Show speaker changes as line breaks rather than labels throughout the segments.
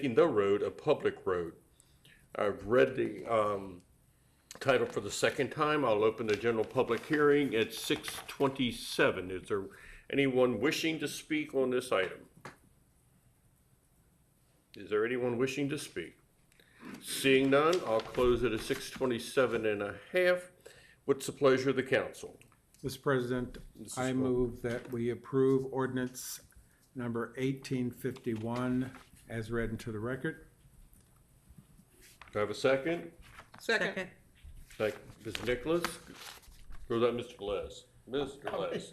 making the road a public road. I've read the um, title for the second time. I'll open the general public hearing at 6:27. Is there anyone wishing to speak on this item? Is there anyone wishing to speak? Seeing none, I'll close it at 6:27 and a half. What's the pleasure of the council?
Mr. President, I move that we approve ordinance number eighteen fifty-one as read into the record.
Do I have a second?
Second.
Thank you, Ms. Nicholas. Or was that Mr. Les? Mr. Les.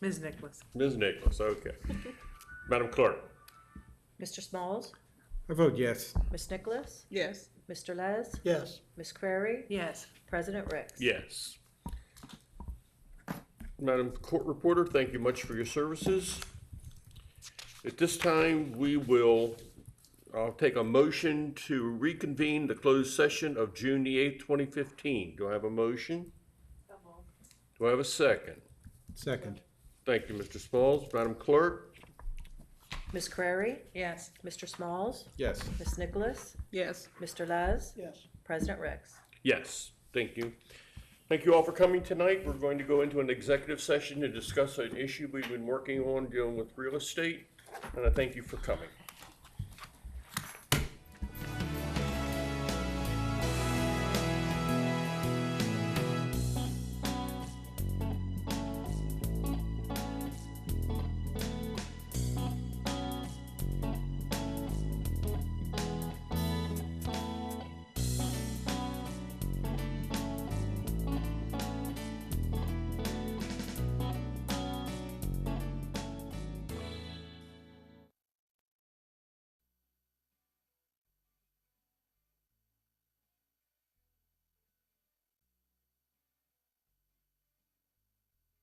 Ms. Nicholas?
Ms. Nicholas, okay. Madam Clerk?
Mr. Smalls,
I vote yes.
Miss Nicholas,
Yes.
Mr. Les,
Yes,
Miss Crary,
Yes.
President Ricks.
Yes. Madam Court Reporter, thank you much for your services. At this time, we will, I'll take a motion to reconvene the closed session of June the eighth, twenty fifteen. Do I have a motion? Do I have a second?
Second,
Thank you, Mr. Smalls. Madam Clerk?
Miss Crary,
Yes.
Mr. Smalls,
yes.
Miss Nicholas,
Yes.
Mr. Les,
yes.
President Ricks.
Yes, thank you. Thank you all for coming tonight. We're going to go into an executive session to discuss an issue we've been working on dealing with real estate, and I thank you for coming.